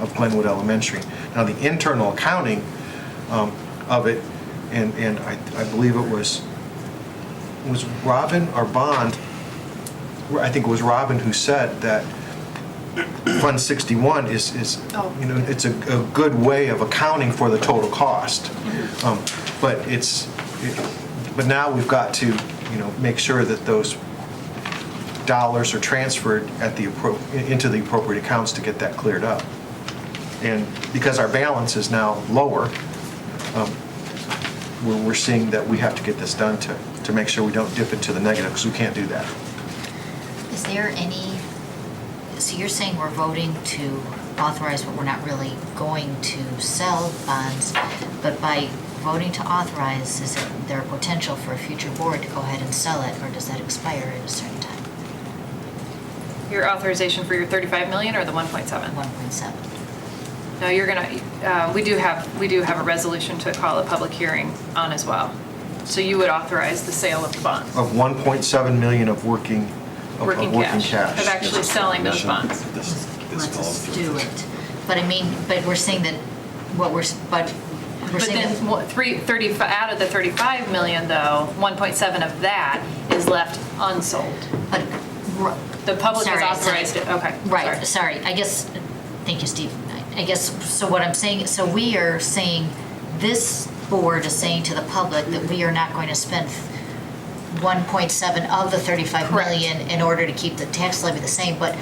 of Glenwood Elementary. Now, the internal accounting um, of it, and, and I, I believe it was, was Robin or Bond, I think it was Robin who said that Fund 61 is, is, Oh. you know, it's a, a good way of accounting for the total cost. Um, But it's, it- but now we've got to, you know, make sure that those dollars are transferred at the, appro- into the appropriate accounts to get that cleared up. And because our balance is now lower, um, we're, we're seeing that we have to get this done to, to make sure we don't dip into the negative, because we can't do that. Is there any, so you're saying we're voting to authorize, but we're not really going to sell bonds, but by voting to authorize, is it- there a potential for a future board to go ahead and sell it, or does that expire at a certain time? Your authorization for your 35 million or the 1.7? 1.7? No, you're gonna, uh, we do have, we do have a resolution to call a public hearing on as well. So you would authorize the sale of the bonds, Of 1.7 million of working, of- Working of working cash. cash. Of actually Yes. selling those bonds. This- this Let's falls just through. do it. But I mean, but we're saying that, what we're, s- but we're But saying then that, what, three, 35, out of the 35 million though, 1.7 of that is left unsold. but. r- The public has sorry, sorry. authorized it, okay. Right, sorry. sorry, I guess, thank you, Steve. I guess, so what I'm saying, so we are saying, this board is saying to the public that we are not going to spend 1.7 of the 35 Correct. million in order to keep the tax levy the same, but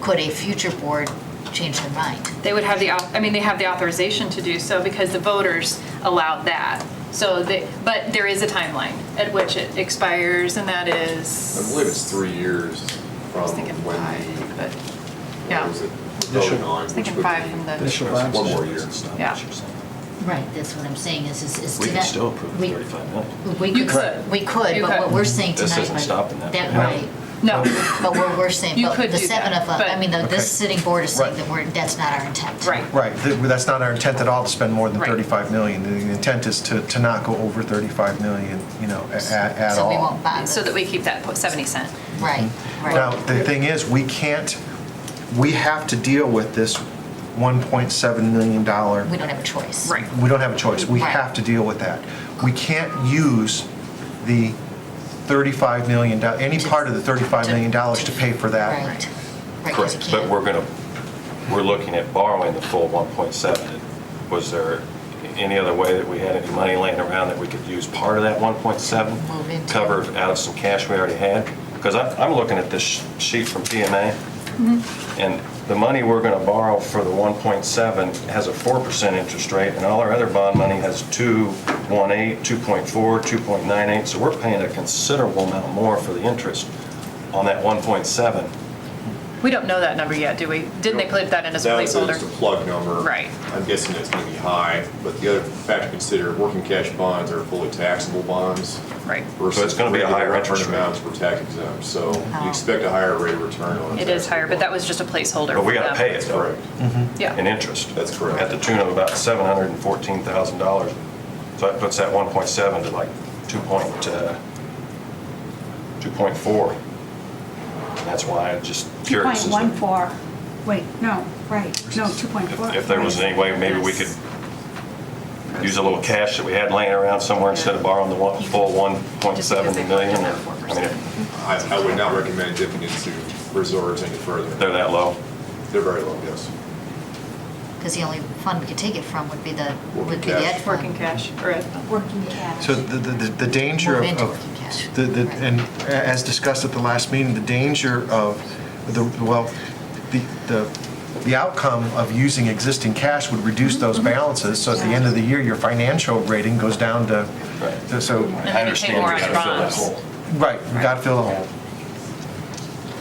could a future board change their mind? They would have the, au- I mean, they have the authorization to do so because the voters allowed that. So they, but there is a timeline at which it expires and that I is, believe it's three years I from was thinking when five, the, but, what yeah. was it? Initial- voted on, I was which thinking would five be- from the- Initial That's one more year. Yeah. Right, that's what I'm saying, is, is- is. We to can that- still approve we- 35 million. We You could, could. we could, You but what could. we're saying tonight. This isn't but- stopping that. That, No. right, No, Oh. but we're, we're saying, You but could the do seven that, of us, I but- mean, the- Okay. this sitting board is saying Right. that we're, that's not our intent. right. Right, th- that's not our intent at all to spend more than Right. 35 million. The intent is to, to not go over 35 million, you know, a- a- at So all. Hmm. we won't buy the. So that we keep that po- 70 cent. Right, Now, right. the thing is, we can't, we have to deal with this 1.7 million dollar We don't have a choice. Right. we don't have a choice. We Right. have to deal with that. We can't use the 35 million, do- any part of the 35 million dollars to pay for that. Right. Right, 'cause you Correct, but can't- we're going to, we're looking at borrowing the full 1.7. Was there any other way that we had any money laying around that we could use part of that 1.7? Move into. Cover out of some cash we already had? Because I'm, I'm looking at this sh- sheet from PMA, Mm-hmm. and the money we're going to borrow for the 1.7 has a 4% interest rate, and all our other bond money has 2.18, 2.4, 2.98, so we're paying a considerable amount more for the interest on that 1.7 We don't know that number yet, do we? Didn't they put that in as a That was just placeholder? a plug number. Right. I'm guessing that's going to be high, but the other factor to consider, working cash bonds are fully taxable bonds. Right. versus So it's gonna be a higher regular interest return rate. Amounts for tax exempt, so Oh. you expect a higher rate of return on. a It is taxable higher, but that bond. was just a placeholder. But we for gotta them. pay it. That's correct. in Yeah. interest. Mm-hmm. That's correct. At the tune of about seven hundred and fourteen thousand dollars. So that puts that one point seven to like two point, uh, two point four. And that's why I'm just curious. as to 2.14, wait, no, right, no, 2.4. if- If there was right. any way, maybe we could use a little cash that we had laying around somewhere instead of borrowing the one, full one point seven Just because they million. collected or- that 4%. I mean, if I, I would not recommend dipping into reserves any further. they're that low. They're very low, yes. Because the only fund we could take it from would be the, would Working be the cash. ed fund. Working cash or a Working cash. So the, the, the- the danger of- Move into working cash. of, the, the, and a- as discussed at the last meeting, the danger of the, well, the, the, the outcome of using existing cash would reduce those Mm-hmm. balances. So at the end of the year, your financial rating goes down to, Right. so- so, And then you pay more on gotta fill that bonds. hole. right, you gotta fill the hole.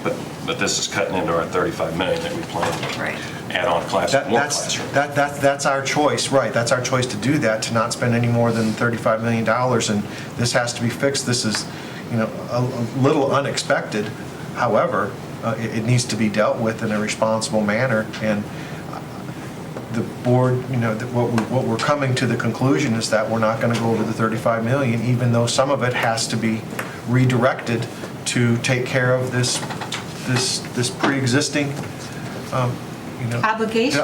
But, but this is cutting into our thirty-five million that we planned. to Right. Add on class, That, more that's, classroom. that, that, that's our choice, right, that's our choice to do that, to not spend any more than thirty-five million dollars, and this has to be fixed, this is, you know, a, a little unexpected, however, uh, it, it needs to be dealt with in a responsible manner, and uh, the board, you know, that what we, what we're coming to the conclusion is that we're not gonna go over the thirty-five million, even though some of it has to be redirected to take care of this, this, this pre-existing, um, you know. Obligation.